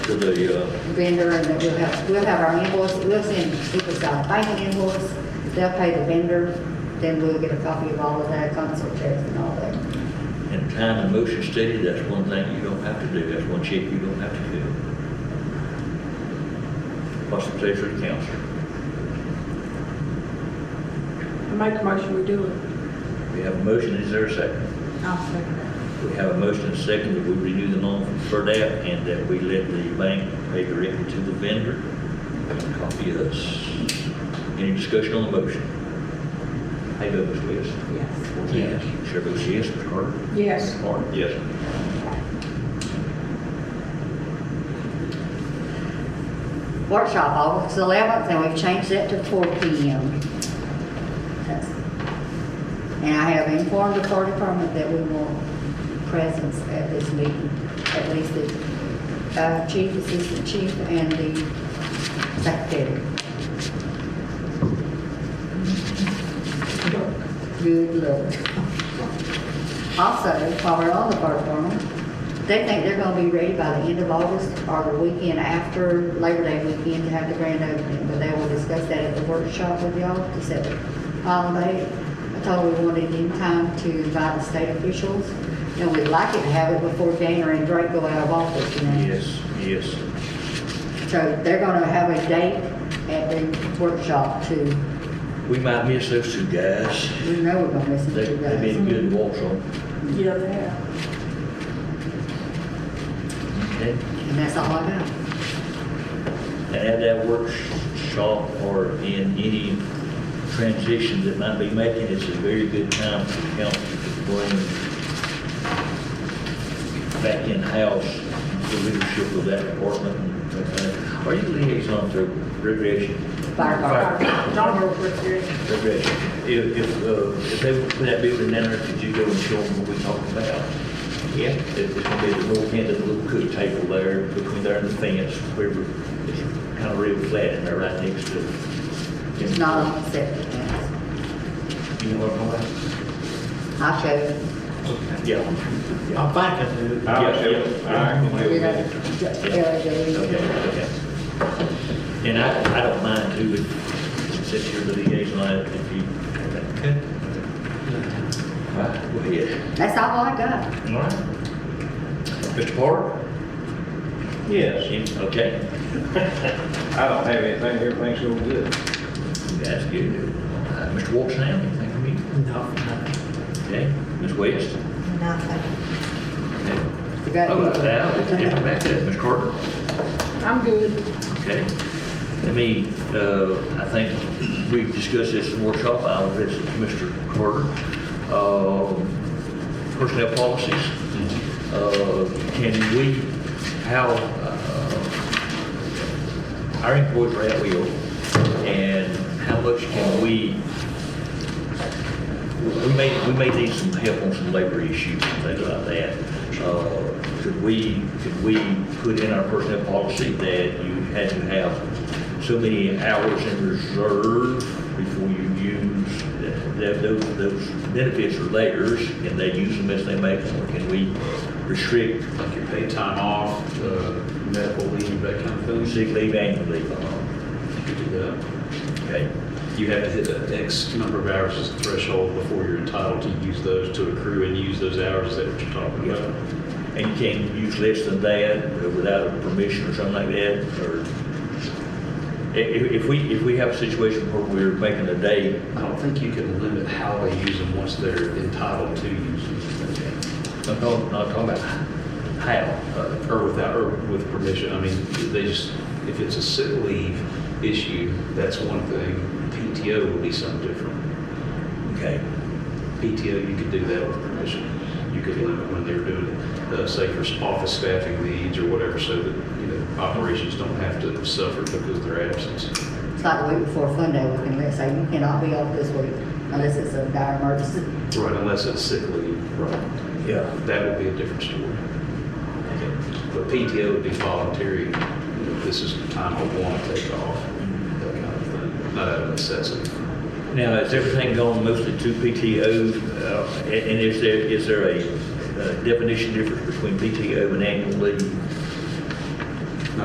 for the, uh, vendor, and then we'll have, we'll have our invoice, we'll send, if it's our banking invoice, they'll pay the vendor, then we'll get a copy of all of that, consult checks and all that. in time and motion study, that's one thing you don't have to do, that's one check you don't have to do. What's the pleasure of the council? I make a motion, we do it. We have a motion, is there a second? I'll second that. We have a motion and a second that we renew the loan for that and that we let the bank pay directly to the vendor. Copy us. Any discussion on the motion? How you vote, Ms. West? Yes. Yes. Chair votes yes, Ms. Carter? Yes. Martin? Yes. Workshop August eleventh, and we've changed that to four P M. That's- And I have informed the court department that we want presence at this meeting, at least the uh, chief, assistant chief, and the secretary. Good luck. Also, while we're on the park department, they think they're gonna be ready by the end of August or the weekend after Labor Day weekend to have the grand opening, but they will discuss that at the workshop with y'all to set the holiday. I told them we wanted in time to invite the state officials, and we'd like it to have it before Gainer and Drake go out of office, you know? Yes, yes. So they're gonna have a date at the workshop to, We might miss those two guys. we know we're gonna miss them They, two they've days. been good walks on. Yeah, they have. Okay. And that's all I got. And have that workshop or in any transition that might be making, it's a very good time for the council to bring back in-house the leadership of that department. and- Are you liaison to recreation? Fire department. Don't work with your, Recreation. If, if, uh, if they would put that building in there, could you go and show them what we talked about? Yeah. It's gonna be the north end of the little cook table there, between there and the fence, where we- it's kind of real flat in there, right next to. It's not on the septic tanks. You know what I'm talking I'll show you. about? Yeah. Yeah. I'm thinking, Yeah, uh, yeah. We yeah, got it. Okay, Yeah, okay. And I, I don't mind who would, since you're the liaison, if you. Okay. All right, go ahead. yeah. That's all I got. All right. Mr. Porter? Yes, Yes. Okay. I don't have anything, everything's going good. That's good. Uh, Mr. Walsh, now, anything for me? Okay. Ms. West? Nothing. You got Oh, it. now, it's different back there. Ms. Carter? I'm good. Okay. Let me, uh, I think we've discussed this in workshop, I'll address it to Mr. Carter. Um, Personnel policies. Uh, Can we, how, uh, our employees are at will, and how much can we, we may, we may need some help on some labor issues and things like that. Uh, Could we, could we put in our personnel policy that you had to have so many hours in reserve before you use, that those, those benefits are theirs and they use them as they make them? Or Can we restrict like your paid time off, uh, medical leave, that kind of thing. sick leave, annual leave? You could do that. Okay, You have to hit an X number of hours as a threshold before you're entitled to use those, to accrue and use those hours, is that what you're talking yes, about? sir. And you can't use less than that uh, without a permission or something like that, or? i- If, if we, if we have a situation where we're making a day, I don't think you can limit how they use them once they're entitled to use them, I'm talking, not talking about how, uh, or without, or with permission, I mean, they just, if it's a sick leave issue, that's one thing, PTO would be something different. okay, PTO, you could do that with permission. You could limit when they're doing, uh, say, for office staffing needs or whatever, so that, you know, operations don't have to suffer because of their absence. It's like the week before Fun Day, we can let, say, you cannot be off this week unless it's a dire emergency. Right. Unless it's sick leave. Right. yeah, That would be a different story. But PTO would be voluntary, you know, this is the time I want to take off, that kind of thing, not out of necessity. Now, is everything going mostly to PTO, uh, and and is there, is there a uh, definition difference between PTO and annual leave?